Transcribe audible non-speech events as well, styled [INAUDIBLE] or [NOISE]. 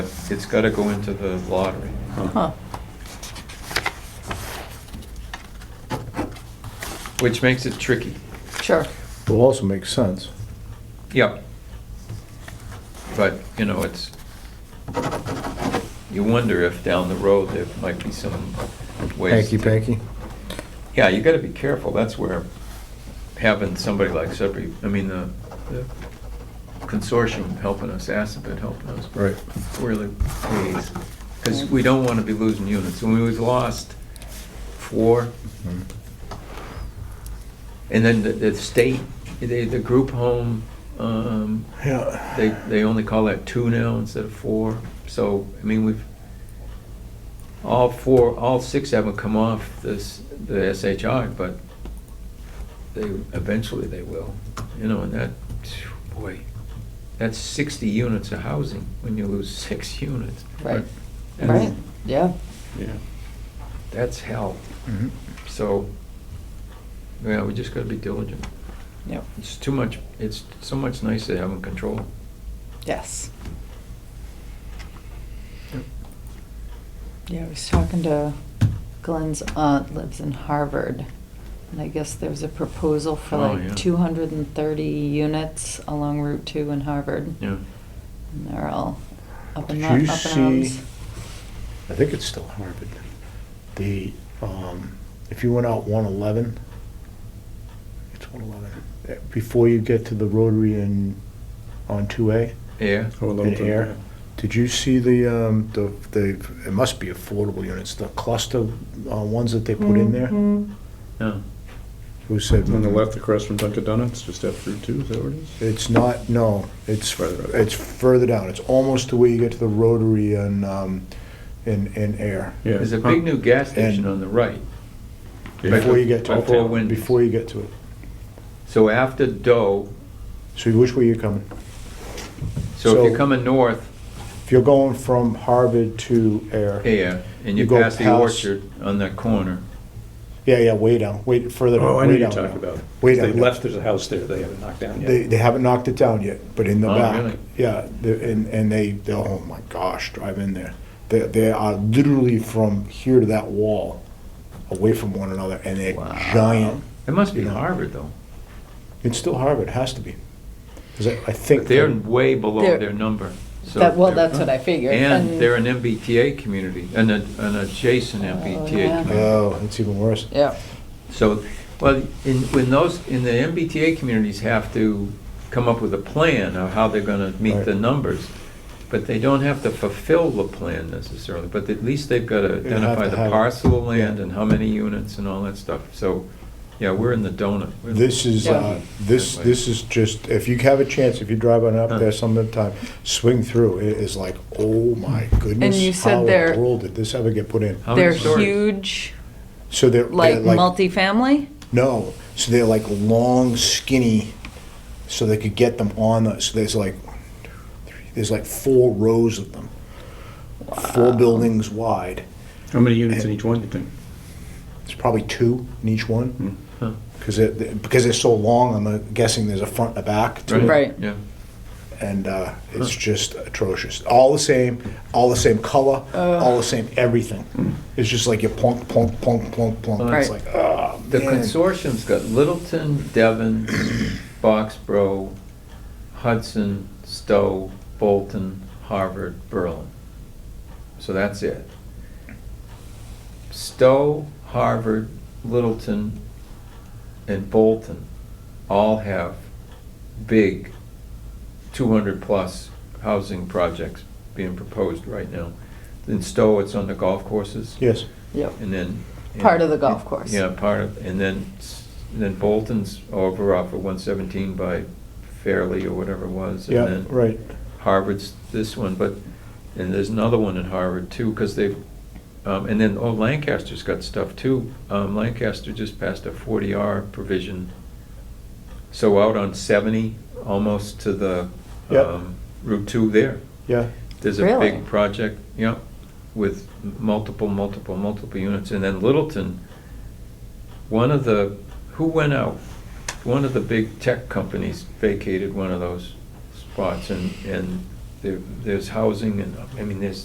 It's gotta go into the lottery. Huh. Which makes it tricky. Sure. Will also make sense. Yep. But, you know, it's, you wonder if down the road there might be some ways. to- Hanky-panky. Yeah, you gotta be careful. That's where having somebody like Sudbury, I mean, the the consortium helping us, ASAP helping us. Right. really please, because we don't want to be losing units. When we've lost four, Mm. and then the, the state, the, the group home, um, Yeah. they, they only call that two now instead of four. So, I mean, we've, all four, all six haven't come off this, the SHI, but they, eventually they will, you know, and that, boy, that's sixty units of housing when you lose [LAUGHS] six units. Right. And Right. Yeah. Yeah. That's hell. Mhm. So, yeah, we just gotta be diligent. Yep. It's too much, it's so much nicer having control. Yes. Yeah, I was talking to Glenn's aunt lives in Harvard, and I guess there's a proposal for Oh, yeah. like two hundred and thirty units along Route Two in Harvard. Yeah. And they're all up in, Did up in you arms. see- I think it's still Harvard. The, um, if you went out one eleven, it's one Uh, eleven, before you get to the rotary and on two A, Yeah. Oh, a little In bit, air. Did you see the, um, the, the, it must be affordable units, the cluster uh, ones that they put in there? Mm-hmm. No. Who said? On the left across from Dunkin' Donuts, just after Route Two, is that where it is? It's not, no, it's, Further up. it's further down. It's almost to where you get to the rotary and, um, in, in air. Yeah. There's a big new gas station on the right. Yeah. Before you get to it. Before Wendy's. Before you get to it. So after Doe, So which way you're coming? so if you're So- coming north, If you're going from Harvard to air. yeah, and you You go pass the past- orchard on that corner. Yeah, yeah, way down, way further. Oh, I know way what you're down, talking no. about. Way They down. no. left, there's a house there they haven't knocked down They, yet. they haven't knocked it down yet, but in the Oh, back. really? Yeah, the- and, and they, they, oh my gosh, drive in there. They, they are literally from here to that wall, away from one another, and they're Wow. giant. It must be Yeah. Harvard though. It's still Harvard, it has to be. 'Cause I, I think. But they're that- way below They're- their number. So That, well, they're- that's what I figured. And they're an MBTA community, an, an adjacent MBTA yeah. community. Oh, it's even worse. Yeah. So, well, in, when those, in the MBTA communities have to come up with a plan of how they're gonna meet Right. the numbers, but they don't have to fulfill the plan necessarily, but at least they've gotta They have identify to the have- parcel of land yeah. and how many units and all that stuff. So, yeah, we're in the donut. We're- This is, Yeah. uh, this, this is just, if you have a chance, if you drive on up there some of the time, swing through, it is like, oh my goodness. you said How in they're- the world did this ever get put in? How many They're stories? huge, So they're. they're like multifamily. No, so they're like long, skinny, so they could get them on the, so there's like, one, two, three, there's like four rows of them. Four buildings wide. How many units in each one, you think? It's probably two in each Hmm. one. Huh. Because it, because they're so long, I'm uh, guessing there's a front and a back to it. Right. Yeah. And uh, it's just atrocious. All the same, all the same color, all the same everything. It's just like you plunk, plunk, plunk, plunk, plunk. It's Hmm. Right. like, ah, The man. consortium's got Littleton, Devon, Boxborough, Hudson, Stowe, Bolton, Harvard, Berlin. So that's it. Stowe, Harvard, Littleton, and Bolton all have big 200-plus housing projects being proposed right now. In Stowe, it's on the golf courses. Yes. Yep. And then. Part of the golf course. Yeah, part of, and then, s- and then Bolton's over off of one seventeen by Fairleigh or whatever it was. and Yeah, then right. Harvard's this one, but, and there's another one in Harvard too, because they've, um, and then, oh, Lancaster's got stuff too. Um, Lancaster just passed a forty R provision. So out on seventy, almost to the, Yep. um, Route two there. Yeah. There's a Really? big project, yeah, with m- multiple, multiple, multiple units. And then Littleton, one of the, who went out? One of the big tech companies vacated one of those spots and, and there, there's housing and, I mean, there's